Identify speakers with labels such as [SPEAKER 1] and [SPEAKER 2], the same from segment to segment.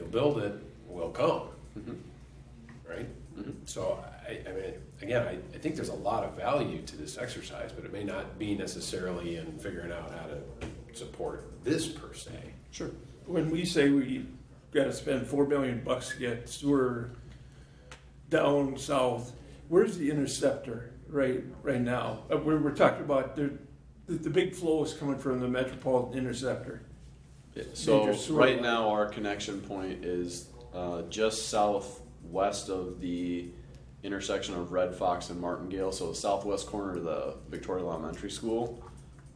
[SPEAKER 1] build it will come, right?
[SPEAKER 2] Mhm.
[SPEAKER 1] So I, I mean, again, I, I think there's a lot of value to this exercise, but it may not be necessarily in figuring out how to support this per se.
[SPEAKER 2] Sure.
[SPEAKER 3] When we say we gotta spend four million bucks to get sewer down south, where's the interceptor right, right now? Uh, we're, we're talking about the, the, the big flow is coming from the metropolitan interceptor.
[SPEAKER 2] Yeah, So
[SPEAKER 3] Major sewer
[SPEAKER 2] right
[SPEAKER 3] line.
[SPEAKER 2] now, our connection point is uh, just southwest of the intersection of Red Fox and Martingale. So the southwest corner of the Victoria Elementary School.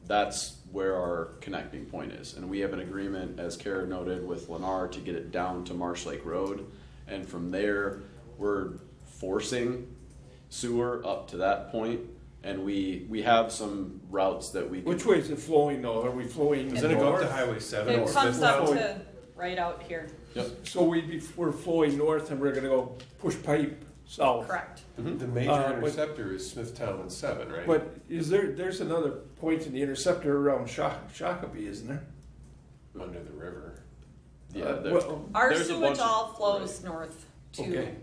[SPEAKER 2] That's where our connecting point is, and we have an agreement, as Kara noted, with Lennar to get it down to Marsh Lake Road, and from there, we're forcing sewer up to that point, and we we have some routes that we. can-
[SPEAKER 3] Which way is it flowing though? Are we flowing?
[SPEAKER 1] Doesn't it go up to
[SPEAKER 3] north?
[SPEAKER 1] Highway seven or
[SPEAKER 4] It comes
[SPEAKER 1] fifth?
[SPEAKER 4] up
[SPEAKER 3] Fifth.
[SPEAKER 4] to right out here,
[SPEAKER 2] Yep.
[SPEAKER 3] So we'd be, we're flowing north and we're gonna go push pipe south.
[SPEAKER 4] correct.
[SPEAKER 1] The
[SPEAKER 3] Uh,
[SPEAKER 1] major
[SPEAKER 3] but-
[SPEAKER 1] interceptor is Smithtown and seven, right?
[SPEAKER 3] But is there, there's another point in the interceptor around Sha- Shakopee, isn't there?
[SPEAKER 1] Under the river.
[SPEAKER 2] Yeah.
[SPEAKER 3] Uh,
[SPEAKER 2] there-
[SPEAKER 3] well,
[SPEAKER 4] Our
[SPEAKER 2] There's a bunch
[SPEAKER 4] sewage
[SPEAKER 2] of-
[SPEAKER 4] all flows north to,
[SPEAKER 3] Okay.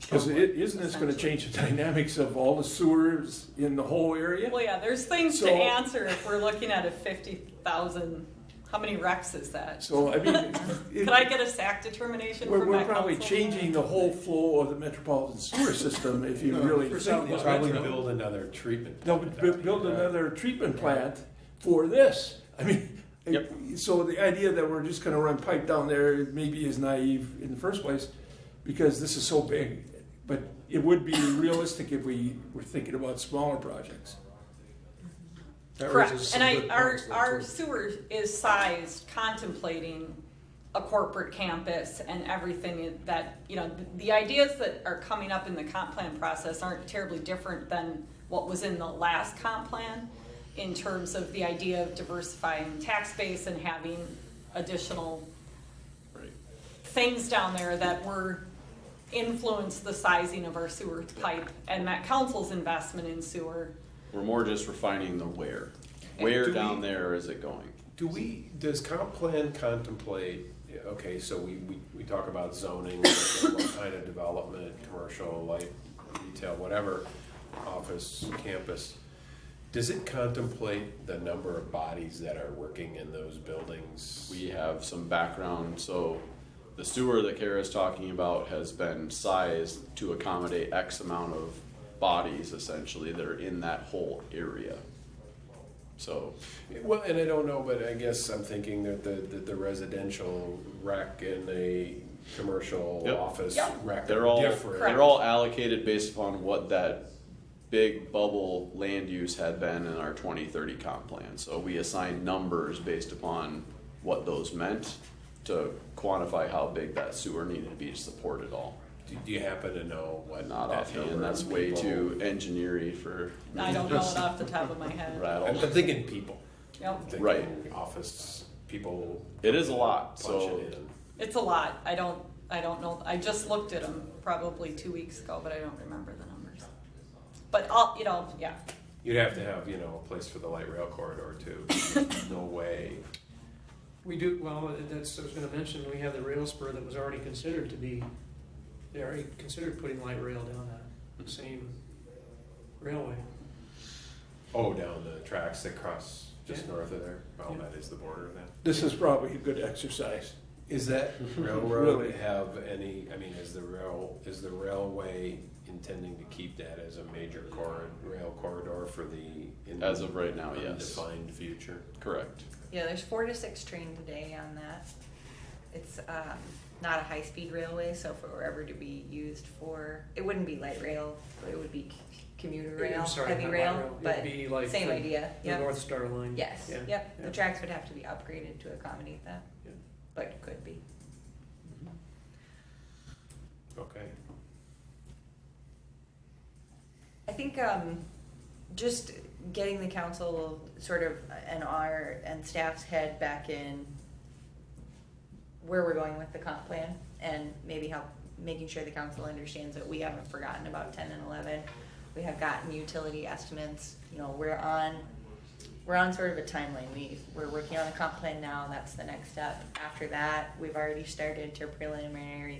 [SPEAKER 3] Because it, isn't this gonna change the dynamics of all the sewers in the whole area?
[SPEAKER 4] well, yeah, there's things to
[SPEAKER 3] So-
[SPEAKER 4] answer if we're looking at a fifty thousand, how many wrecks is that?
[SPEAKER 3] So, I mean, it-
[SPEAKER 4] Could I get a SAC determination
[SPEAKER 3] we're,
[SPEAKER 4] from
[SPEAKER 3] we're
[SPEAKER 4] that
[SPEAKER 3] probably
[SPEAKER 4] council?
[SPEAKER 3] changing the whole flow of the metropolitan sewer system if you really think about
[SPEAKER 1] Probably
[SPEAKER 3] it.
[SPEAKER 1] build another treatment.
[SPEAKER 3] They'll
[SPEAKER 1] plant
[SPEAKER 3] bu-
[SPEAKER 1] out
[SPEAKER 3] build
[SPEAKER 5] uh,
[SPEAKER 1] here.
[SPEAKER 3] another treatment plant for this. I mean,
[SPEAKER 2] Yep.
[SPEAKER 3] so the idea that we're just gonna run pipe down there maybe is naive in the first place, because this is so big. But it would be realistic if we were thinking about smaller projects.
[SPEAKER 5] That raises
[SPEAKER 4] Correct,
[SPEAKER 5] some
[SPEAKER 4] and I,
[SPEAKER 5] good
[SPEAKER 4] our,
[SPEAKER 5] points, though,
[SPEAKER 4] our
[SPEAKER 5] too.
[SPEAKER 4] sewer is sized contemplating a corporate campus and everything that, you know, the- the ideas that are coming up in the comp plan process aren't terribly different than what was in the last comp plan in terms of the idea of diversifying tax base and having additional
[SPEAKER 2] Right.
[SPEAKER 4] things down there that were influenced the sizing of our sewer pipe and that council's investment in sewer.
[SPEAKER 2] We're more just refining the where.
[SPEAKER 4] And
[SPEAKER 2] Where
[SPEAKER 1] do
[SPEAKER 2] down
[SPEAKER 1] we-
[SPEAKER 2] there is it going?
[SPEAKER 1] Do we, does comp plan contemplate, yeah, okay, so we, we, we talk about zoning, what kind of development, commercial, light, retail, whatever, office, campus. Does it contemplate the number of bodies that are working in those buildings?
[SPEAKER 2] We have some background, so the sewer that Kara's talking about has been sized to accommodate X amount of bodies essentially that are in that whole area. So,
[SPEAKER 1] Well, and I don't know, but I guess I'm thinking that the, that the residential rec and the commercial
[SPEAKER 2] Yep.
[SPEAKER 1] office
[SPEAKER 4] Yeah.
[SPEAKER 1] rec
[SPEAKER 2] they're
[SPEAKER 1] are
[SPEAKER 2] all,
[SPEAKER 1] different.
[SPEAKER 2] they're all allocated based upon what that big bubble land use had been in our twenty thirty comp plan. So we assign numbers based upon what those meant to quantify how big that sewer needed to be to support it all.
[SPEAKER 1] Do do you happen to know what?
[SPEAKER 2] Not
[SPEAKER 1] that
[SPEAKER 2] offhand,
[SPEAKER 1] number of
[SPEAKER 2] that's way
[SPEAKER 1] people-
[SPEAKER 2] too engineering for
[SPEAKER 4] I don't know it off the top of my head.
[SPEAKER 1] I'm
[SPEAKER 2] rattle.
[SPEAKER 1] I'm thinking people.
[SPEAKER 4] Yep.
[SPEAKER 1] thinking
[SPEAKER 2] Right.
[SPEAKER 1] Office people.
[SPEAKER 2] It is a lot,
[SPEAKER 1] punch
[SPEAKER 2] so-
[SPEAKER 1] it in.
[SPEAKER 4] It's a lot. I don't, I don't know. I just looked at them probably two weeks ago, but I don't remember the numbers. But I'll, you know, yeah.
[SPEAKER 1] You'd have to have, you know, a place for the light rail corridor too. No way.
[SPEAKER 5] We do, well, that's, I was gonna mention, we have the rail spur that was already considered to be, they already considered putting light rail down that same railway.
[SPEAKER 1] Oh, down the tracks that cross just
[SPEAKER 5] Yeah.
[SPEAKER 1] north of there. Well,
[SPEAKER 5] Yeah.
[SPEAKER 1] that is the border then.
[SPEAKER 3] This is probably a good exercise.
[SPEAKER 1] Is that railroad
[SPEAKER 3] Really?
[SPEAKER 1] have any, I mean, is the rail, is the railway intending to keep that as a major corridor, rail corridor for the?
[SPEAKER 2] As of right now, yes.
[SPEAKER 1] Defined future?
[SPEAKER 2] Correct.
[SPEAKER 6] Yeah, there's four to six train today on that. It's um, not a high-speed railway, so if it were ever to be used for, it wouldn't be light rail, but it would be c- commuter rail,
[SPEAKER 5] I'm sorry,
[SPEAKER 6] heavy
[SPEAKER 5] not light
[SPEAKER 6] rail,
[SPEAKER 5] It'd
[SPEAKER 6] but
[SPEAKER 5] be like
[SPEAKER 6] same
[SPEAKER 5] the-
[SPEAKER 6] idea,
[SPEAKER 5] The
[SPEAKER 6] yep.
[SPEAKER 5] North Star line.
[SPEAKER 6] Yes,
[SPEAKER 5] Yeah,
[SPEAKER 6] yep, the
[SPEAKER 5] yeah.
[SPEAKER 6] tracks would have to be upgraded to accommodate that,
[SPEAKER 5] Yeah.
[SPEAKER 6] but could be.
[SPEAKER 1] Okay.
[SPEAKER 6] I think um, just getting the council sort of uh, and our and staff's head back in where we're going with the comp plan and maybe help making sure the council understands that we haven't forgotten about ten and eleven. We have gotten utility estimates, you know, we're on we're on sort of a timeline. We, we're working on the comp plan now, that's the next step. After that, we've already started to preliminary